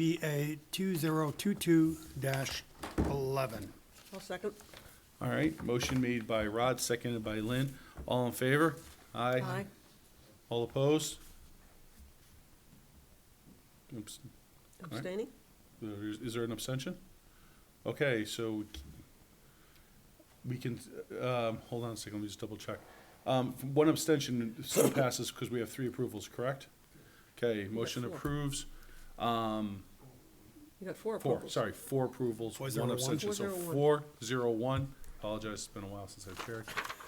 ZBA 2022-11. I'll second. All right, motion made by Rod, seconded by Lynn. All in favor? Aye. Aye. All opposed? Oops, uh, Abstaining? is is there an abstention? Okay, so we can, um, hold on a second, let me just double check. Um, one abstention still passes because we have three approvals, correct? Okay, motion four. approves, You got four four, approvals. sorry, four approvals, Four, zero, one one. abstention, so four, Four, zero, one. Apologize, it's been a while since I've chaired.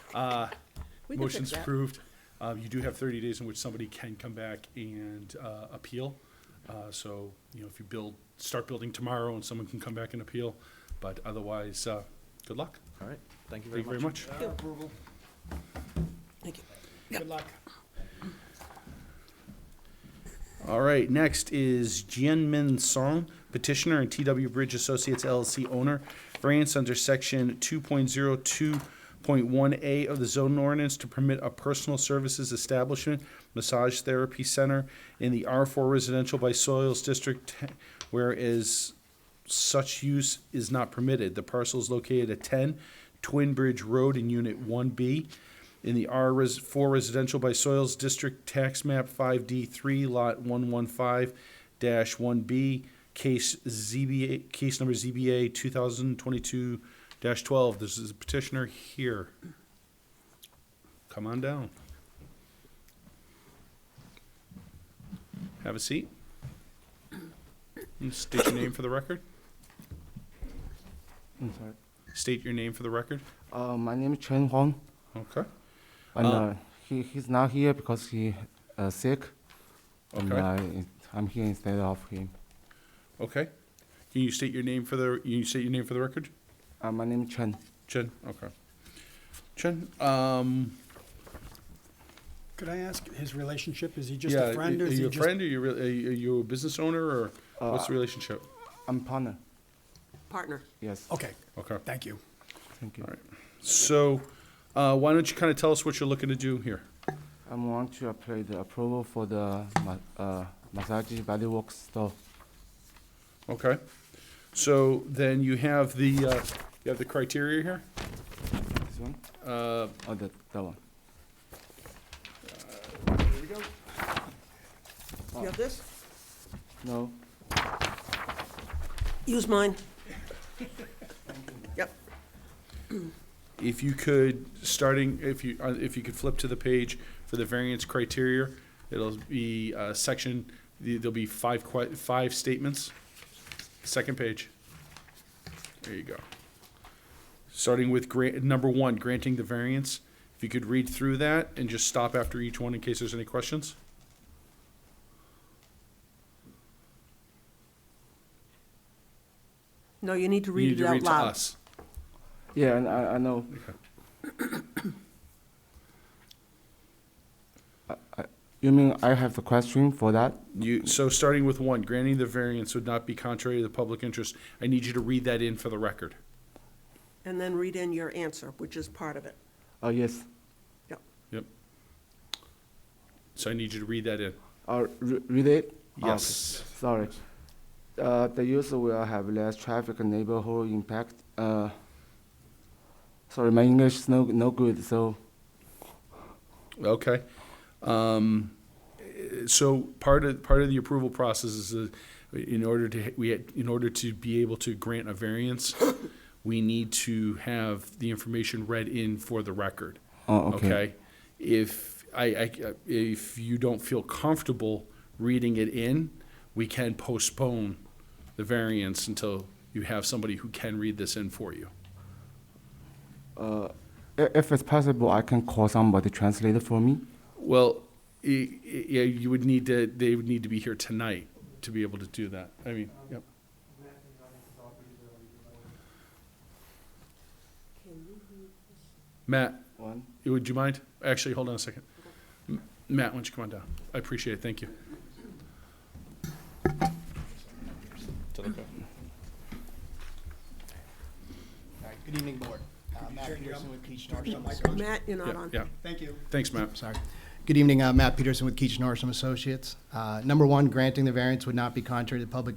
We can fix Motion's that. approved. Uh, You do have 30 days in which somebody can come back and uh, appeal. Uh, So, you know, if you build, start building tomorrow and someone can come back and appeal, but otherwise, uh, good luck. All right, thank you Thank you very much. Approval. Thank you. Good luck. All right, next is Jian Min Song, petitioner and TW Bridge Associates LLC owner. Variance under section 2.02.1A of the zoning ordinance to permit a personal services establishment, massage therapy center in the R4 residential by soils district, whereas such use is not permitted. The parcel is located at 10 Twin Bridge Road in Unit 1B in the R4 Residential by Soils District Tax Map 5D3, Lot 115-1B, case ZBA, case number ZBA 2022-12. This is petitioner here. Come on down. Have a seat. And State your name for the record. State your name for the record. Uh, my name is Chen Huang, Okay. and Uh, uh, he, he's not here because he uh, sick. And Okay. I, I'm here instead of him. Okay. Can you state your name for the, can you state your name for the record? Uh, my name is Chen. Chen, okay. Chen, um. Could I ask his relationship? Is he just yeah, a friend or Are is you he a just? Uh, friend, are you, re- are you a business owner, or what's the relationship? I'm partner. Partner. Yes. Okay, Okay, thank you. Thank you. all right. So, uh, why don't you kind of tell us what you're looking to do here? I want to apply the approval for the ma- uh, massage body works store. Okay. So then you have the, uh, you have the criteria here? This one? Uh, Or the, that one? You have this? No. Use mine. Yep. If you could, starting, if you, uh, if you could flip to the page for the variance criteria, it'll be uh, section, the- there'll be five, que- five statements. Second page. There you go. Starting with grant, number one, granting the variance. If you could read through that and just stop after each one in case there's any questions. No, you need to You read need it to out read to loud. us. Yeah, and I, I know. I- I- Uh, You mean I have the question for that? You, so starting with one, granting the variance would not be contrary to the public interest. I need you to read that in for the record. And then read in your answer, which is part of it. Oh, yes. Yep. Yep. So I need you to read that in. Uh, re- read it? Oh, okay. Yes. Sorry. Uh, the user will have less traffic and neighborhood impact. Uh, sorry, my English is no, no good, so Okay. Um, eh, so part of, part of the approval process is, uh, in order to, ha- we, had- in order to be able to grant a variance, we need to have the information read in for the record. Oh, okay. If I, I, if you don't feel comfortable reading it in, we can postpone the variance until you have somebody who can read this in for you. i- if it's possible, I can call somebody translate it for me. Well, i- i- yeah, you would need to, they would need to be here tonight to be able to do that. I mean, yep. Matt, One. would you mind? Actually, hold on a second. M- Matt, why don't you come on down? I appreciate it, thank you. All right, good evening, Board. Uh, Matt Peterson with Keach Norsham Associates. Matt, you're not Yeah, on. yeah. Thank you. Thanks, Matt. Sorry. Good evening, uh, Matt Peterson with Keach Norsham Associates. Uh, Number one, granting the variance would not be contrary to the public